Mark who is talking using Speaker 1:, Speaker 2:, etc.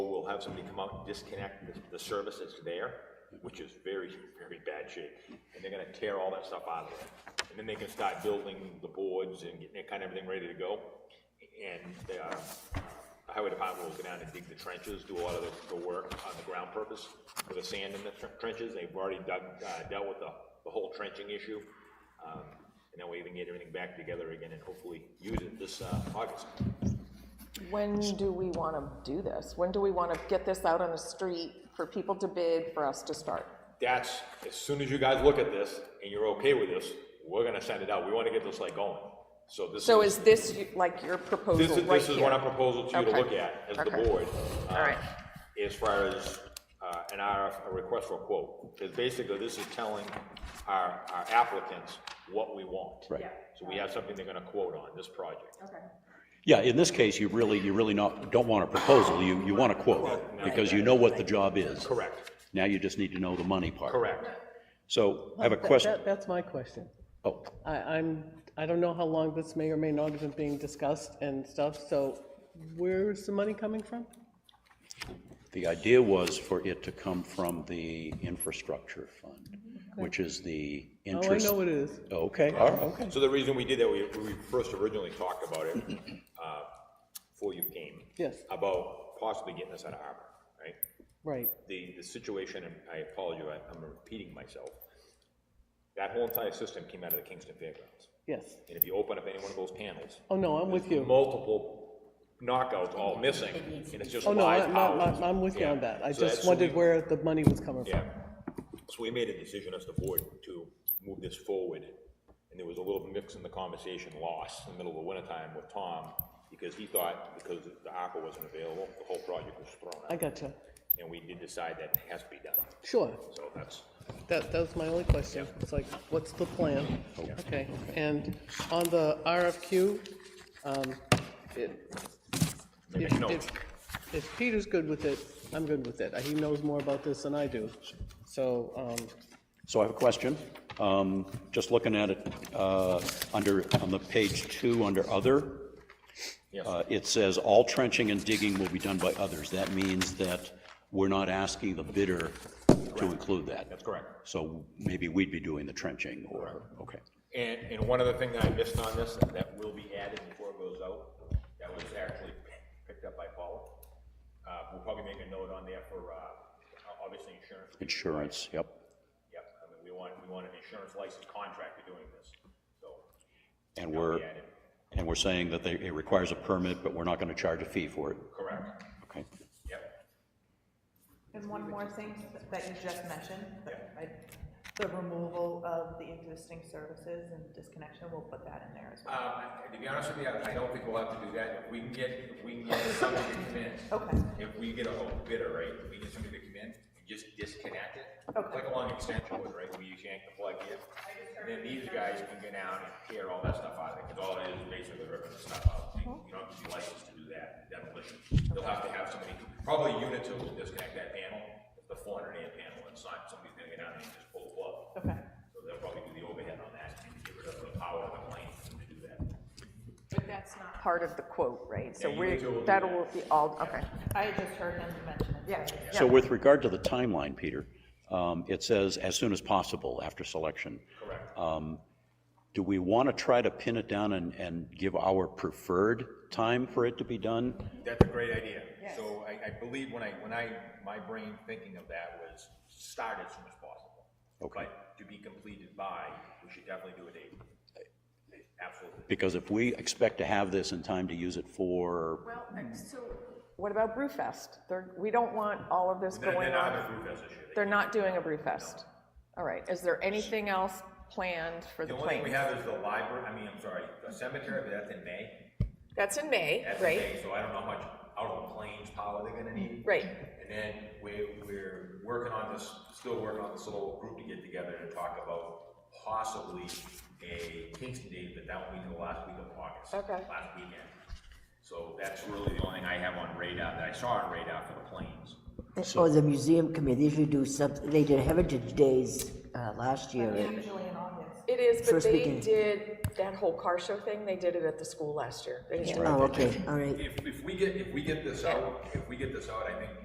Speaker 1: have somebody come out and disconnect the, the service that's there, which is very, very bad shape, and they're gonna tear all that stuff out of there. And then they can start building the boards and getting that kind of everything ready to go. And the uh, highway department will go down and dig the trenches, do a lot of the, the work on the ground purpose for the sand in the tren- trenches. They've already dug, uh, dealt with the, the whole trenching issue. Um, and then we even get everything back together again and hopefully use it this, uh, August.
Speaker 2: When do we want to do this? When do we want to get this out on the street for people to bid, for us to start?
Speaker 1: that's, as soon as you guys look at this and you're okay with this, we're gonna send it out. We wanna get this like going. So this
Speaker 2: So
Speaker 1: is,
Speaker 2: is this y- like your proposal
Speaker 1: this
Speaker 2: right
Speaker 1: is,
Speaker 2: here?
Speaker 1: this is what I'm proposing to you to
Speaker 2: Okay.
Speaker 1: look at as the
Speaker 2: Okay.
Speaker 1: board. uh,
Speaker 2: All right.
Speaker 1: As far as, uh, an RF, a request for a quote, because basically this is telling our, our applicants what we want.
Speaker 3: Right. Yeah.
Speaker 1: So we have something they're gonna quote on, this project.
Speaker 3: Yeah, in this case, you really, you really not, don't want a proposal, you, you want a quote, because you know what the job is.
Speaker 1: Correct,
Speaker 3: Now you just need to know the money part.
Speaker 1: correct.
Speaker 3: So I have a
Speaker 4: That-
Speaker 3: question,
Speaker 4: that- That's my question.
Speaker 3: oh,
Speaker 4: I, I'm, I don't know how long this may or may not have been being discussed and stuff, so where's the money coming from? Oh,
Speaker 3: the idea was for it to come from the infrastructure fund, which is the
Speaker 4: Oh, I
Speaker 3: interest.
Speaker 4: know it is.
Speaker 3: Okay, all right, okay.
Speaker 1: So the reason we did that, we, we first originally talked about it, uh, before you came.
Speaker 4: Yes.
Speaker 1: About possibly getting this out of Arbor, right?
Speaker 4: Right,
Speaker 1: the, the situation, and I apologize, I'm repeating myself. That whole entire system came out of the Kingston Fairgrounds.
Speaker 4: yes.
Speaker 1: And if you open up any one of those panels,
Speaker 4: Oh, no, I'm with you.
Speaker 1: multiple knockouts all missing, and it's just
Speaker 4: Oh, no,
Speaker 1: live
Speaker 4: I'm,
Speaker 1: towers.
Speaker 4: I'm, I'm with you
Speaker 1: Yeah.
Speaker 4: on that. I
Speaker 1: So that's-
Speaker 4: just
Speaker 1: so
Speaker 4: wondered
Speaker 1: we-
Speaker 4: where the money was coming from.
Speaker 1: Yeah, so we made a decision as the board to move this forward, and there was a little mix in the conversation lost in the middle of the wintertime with Tom, because he thought, because the ARPA wasn't available, the whole project was thrown
Speaker 4: I
Speaker 1: out,
Speaker 4: gotcha.
Speaker 1: and we did decide that it has to be done,
Speaker 4: Sure,
Speaker 1: so that's.
Speaker 4: that, that was my only question. It's like, what's the plan?
Speaker 1: Oh,
Speaker 4: Okay, and on the RFQ, um, it,
Speaker 1: Maybe I
Speaker 4: If-
Speaker 1: know.
Speaker 4: if- If Peter's good with it, I'm good with it. He knows more about this than I do. So, um,
Speaker 3: So I have a question. Um, Just looking at it, uh, under, on the page two, under other,
Speaker 1: Yes.
Speaker 3: uh, it says, "All trenching and digging will be done by others." That means that we're not asking the bidder to include that.
Speaker 1: That's correct.
Speaker 3: So maybe we'd be doing the trenching or, okay.
Speaker 1: And, and one other thing that I missed on this, that will be added before it goes out, that was actually picked up by Paula. Uh, we'll probably make a note on there for, uh, obviously insurance.
Speaker 3: Insurance, yep.
Speaker 1: Yep, I mean, we want, we want an insurance license contractor doing this, so.
Speaker 3: And we're,
Speaker 1: be added.
Speaker 3: and we're saying that they- it requires a permit, but we're not going to charge a fee for it.
Speaker 1: Correct,
Speaker 3: Okay.
Speaker 1: yep.
Speaker 5: And one more thing that you just mentioned, that I- the removal of the existing services and disconnection, we'll put that in there as well.
Speaker 1: Um, to be honest with you, I I don't think we'll have to do that, if we can get, if we can get somebody to come in.
Speaker 5: Okay.
Speaker 1: If we get a whole bidder, right, if we get somebody to come in and just disconnect it.
Speaker 5: Okay.
Speaker 1: Like a long extension cord, right, where you yank the plug in, and then these guys can get down and tear all that stuff out of it, because all it is is basically ripping the stuff out. You you don't have to be licensed to do that, demolition, you'll have to have somebody, probably Unitil will disconnect that panel, the four hundred amp panel, it's not, somebody's gonna get down and just pull the plug.
Speaker 5: Okay.
Speaker 1: So they'll probably do the overhead on that, and get rid of the power of the plane to do that.
Speaker 2: Part of the quote, right? So
Speaker 1: Yeah, you
Speaker 2: we,
Speaker 1: two will do
Speaker 2: that'll be all, okay.
Speaker 5: I had just heard him mention it. Yeah.
Speaker 3: So with regard to the timeline, Peter, um, it says as soon as possible after selection. Um,
Speaker 1: Correct.
Speaker 3: Do we want to try to pin it down and, and give our preferred time for it to be done?
Speaker 1: That's a great idea. So I, I believe when I, when I, my brain thinking of that was start as soon as possible.
Speaker 3: Okay.
Speaker 1: But to be completed by, we should definitely do a date. Absolutely.
Speaker 3: Because if we expect to have this in time to use it for,
Speaker 2: What about Brewfest? They're, we don't want all of this
Speaker 1: Then,
Speaker 2: going
Speaker 1: then I have
Speaker 2: on.
Speaker 1: a food fest issue.
Speaker 2: They're not doing a Brewfest. All right, is there anything else planned for
Speaker 1: The
Speaker 2: the
Speaker 1: only thing we
Speaker 2: planes?
Speaker 1: have is the library, I mean, I'm sorry, the cemetery, but that's in May.
Speaker 2: That's in May,
Speaker 1: That's in
Speaker 2: right?
Speaker 1: May, so I don't know how much out of the planes power they're gonna need.
Speaker 2: Right.
Speaker 1: And then we, we're working on this, still working on this little group to get together to talk about possibly a Kingston date, but that will be the last week of August.
Speaker 2: Okay.
Speaker 1: Last weekend. So that's really the only thing I have on radar, that I saw on radar for the planes.
Speaker 6: Or the museum committee, they usually do something, they did Heritage Days uh, last year. and-
Speaker 5: Usually in August.
Speaker 2: It is, but
Speaker 6: First
Speaker 2: they
Speaker 6: weekend.
Speaker 2: did that whole car show thing, they did it at the school last year. They just did
Speaker 6: Oh, okay, all right.
Speaker 1: If, if we get, if we get this out, if we get this out, I think